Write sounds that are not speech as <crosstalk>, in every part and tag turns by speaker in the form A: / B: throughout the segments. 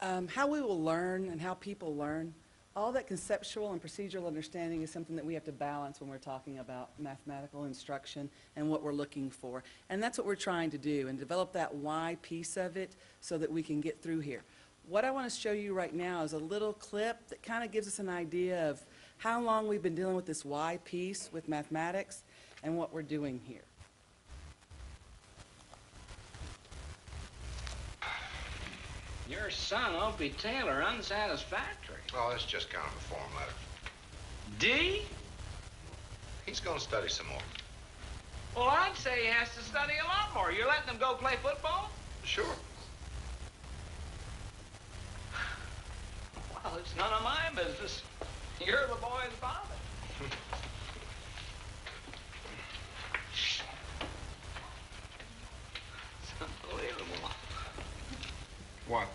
A: Um, How we will learn and how people learn, all that conceptual and procedural understanding is something that we have to balance when we're talking about mathematical instruction and what we're looking for. And that's what we're trying to do, and develop that why piece of it so that we can get through here. What I want to show you right now is a little clip that kind of gives us an idea of how long we've been dealing with this why piece with mathematics and what we're doing here.
B: Your son, Opie Taylor, unsatisfactory.
C: Oh, that's just kind of a form letter.
B: D?
C: He's going to study some more.
B: Well, I'd say he has to study a lot more. You're letting him go play football?
C: Sure.
B: Well, it's none of my business. You're the boy's father. it's unbelievable.
C: What?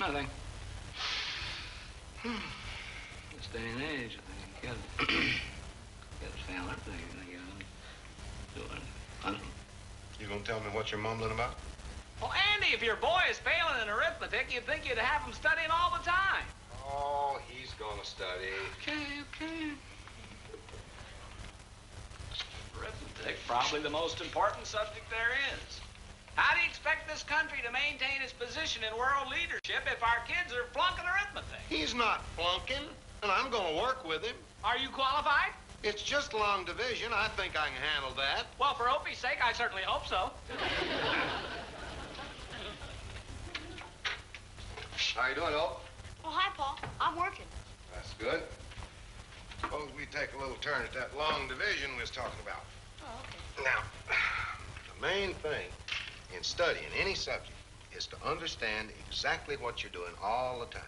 B: Nothing. Hmm. This day and age, I think you gotta, <clears throat> gotta stand up there. You gotta do it. I don't
C: You going to tell me what you're mumbling about?
B: Well, Andy, if your boy is failing in arithmetic, you'd think you'd have him studying all the time.
C: Oh, he's going to study.
B: Okay, okay. Arithmetic, probably the most important subject there is. How do you expect this country to maintain its position in world leadership if our kids are flunking arithmetic?
C: He's not flunking, and I'm going to work with him.
B: Are you qualified?
C: It's just long division. I think I can handle that.
B: Well, for Opie's sake, I certainly hope so.
C: How you doing, Elf?
D: Oh, hi, Paul. I'm working.
C: That's good. Suppose we take a little turn at that long division we was talking about.
D: Oh, okay.
C: Now, the main thing in studying any subject is to understand exactly what you're doing all the time.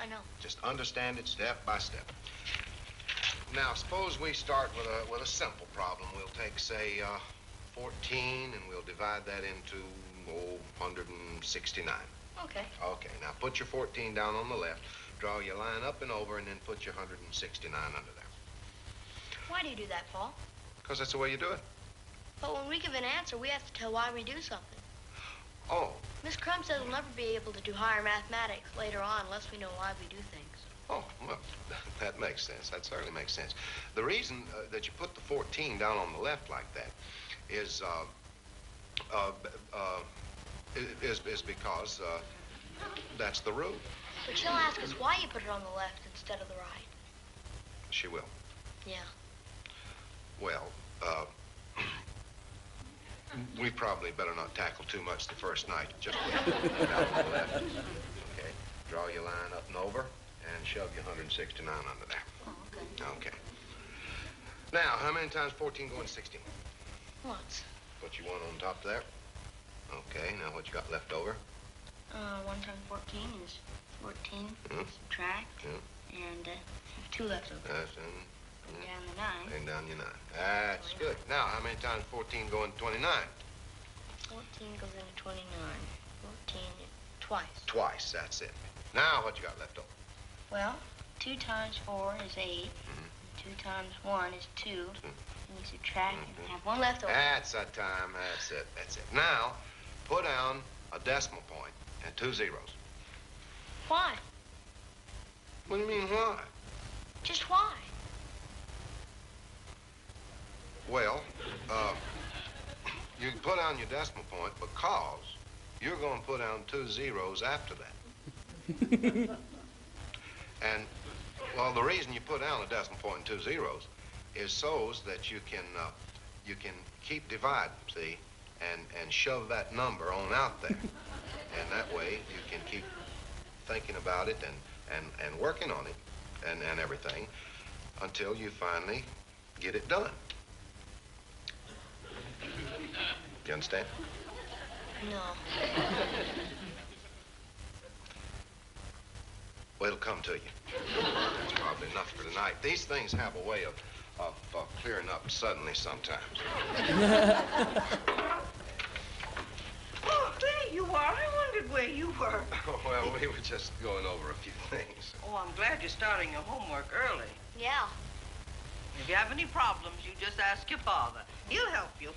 D: I know.
C: Just understand it step by step. Now, suppose we start with a with a simple problem. We'll take, say, uh, 14, and we'll divide that into oh, 169.
D: Okay.
C: Okay. Now put your 14 down on the left, draw your line up and over, and then put your 169 under there.
D: Why do you do that, Paul?
C: Cause that's the way you do it.
D: But when we give an answer, we have to tell why we do something.
C: Oh,
D: Miss Crumb says we'll never be able to do higher mathematics later on unless we know why we do things.
C: oh, well, that makes sense. That certainly makes sense. The reason uh, that you put the 14 down on the left like that is uh, uh, b- uh, i- is is because uh, that's the rule.
D: But she'll ask us why you put it on the left instead of the right.
C: She will.
D: Yeah.
C: Well, uh, <clears throat> we probably better not tackle too much the first night. Just put it down on the left. Okay. Draw your line up and over, and shove your 169 under there.
D: Oh, okay.
C: Okay. Now, how many times 14 going 16?
D: Once.
C: What you want on top there? Okay. Now, what you got left over?
D: Uh, 1 times 14 is 14.
C: Mhm.
D: Subtract.
C: Yeah.
D: And uh, 2 left over.
C: That's in,
D: And down the 9.
C: and down your nine. That's good. Now, how many times 14 going 29?
D: 14 goes into 29. 14 twice.
C: Twice. That's it. Now, what you got left over?
D: Well, two times four is 8 Two times one is 2 And you subtract and have one left over.
C: That's a time. That's it. That's it. Now, put down a decimal point and two zeros.
D: Why?
C: What do you mean, why?
D: Just why?
C: Well, uh, you can put down your decimal point because you're going to put down two zeros after that. and, well, the reason you put down a decimal point and two zeros is so's that you can, uh, you can keep dividing, see, and, and shove that number on out there. and that way you can keep thinking about it and, and, and working on it and, and everything until you finally get it done. You understand?
D: No.
C: Well, it'll come to you. That's probably enough for tonight. These things have a way of, of, of clearing up suddenly sometimes. <laughs>
E: Oh, there you are. I wondered where you were.
C: well, we were just going over a few things.
E: Oh, I'm glad you're starting your homework early.
D: Yeah.
E: If you have any problems, you just ask your father. He'll help you.